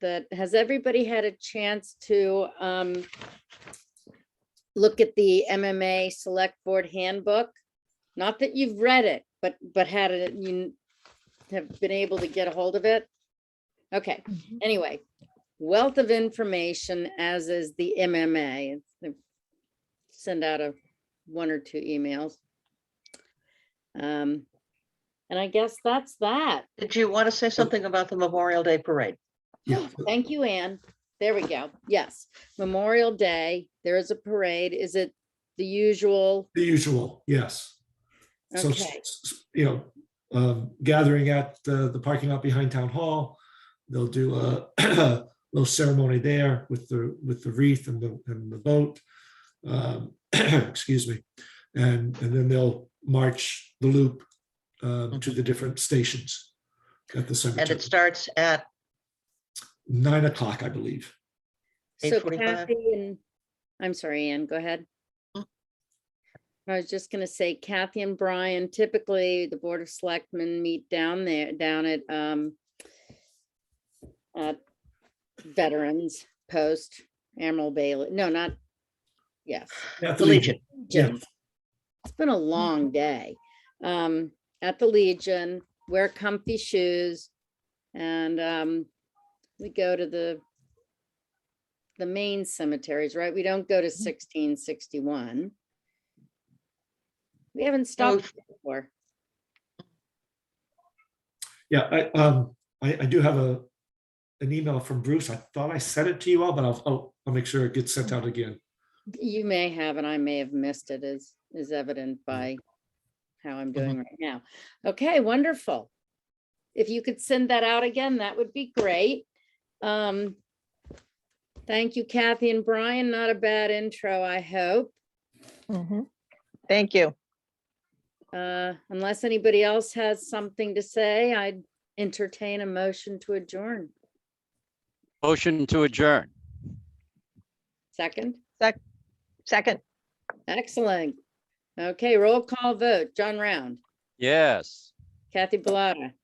that, has everybody had a chance to um, look at the MMA Select Board Handbook? Not that you've read it, but, but had it, you have been able to get a hold of it? Okay, anyway, wealth of information, as is the MMA. They Send out a, one or two emails. Um, And I guess that's that. Did you want to say something about the Memorial Day Parade? Yeah, Oh, Thank you, Anne. There we go. Yes, Memorial Day, there is a parade. Is it the usual? the usual, yes. So, s- Okay. s- s- you know, um, gathering at the, the parking lot behind Town Hall. They'll do a little ceremony there with the, with the wreath and the, and the boat. Um, Excuse me. And, and then they'll march the loop um, to the different stations at the Mm-hmm. And cemetery. it starts at, Nine o'clock, I believe. So 8:45. Kathy and, I'm sorry, Anne, go ahead. Mm. I was just gonna say Kathy and Brian, typically the Board of Selectmen meet down there, down at, um, at Veterans Post, Admiral Bailey, no, not, yes. At the Legion. Yeah. Legion. It's been a long day. Um, at the Legion, wear comfy shoes. And, um, we go to the, the main cemeteries, right? We don't go to sixteen sixty-one. We haven't stopped before. Yeah, I, um, I, I do have a, an email from Bruce. I thought I sent it to you all, but I'll, I'll, I'll make sure it gets sent out again. You may have, and I may have missed it, as is evident by how I'm doing right now. Okay, wonderful. If you could send that out again, that would be great. Um, Thank you, Kathy and Brian. Not a bad intro, I hope. Mhm. Thank you. Uh, Unless anybody else has something to say, I'd entertain a motion to adjourn. Motion to adjourn. Second, Second, excellent. Okay, roll call vote. John Round, Yes. Kathy Bellata,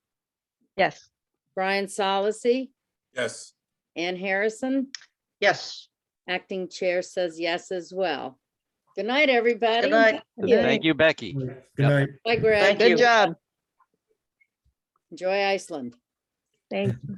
yes. Brian Solacey, Yes. Ann Harrison. Yes. Acting chair says yes as well. Good night, everybody. Good night. Yeah. Thank you, Becky. Good Yep. night. Bye, Greg. Thank you. Good job. Enjoy Iceland. Thank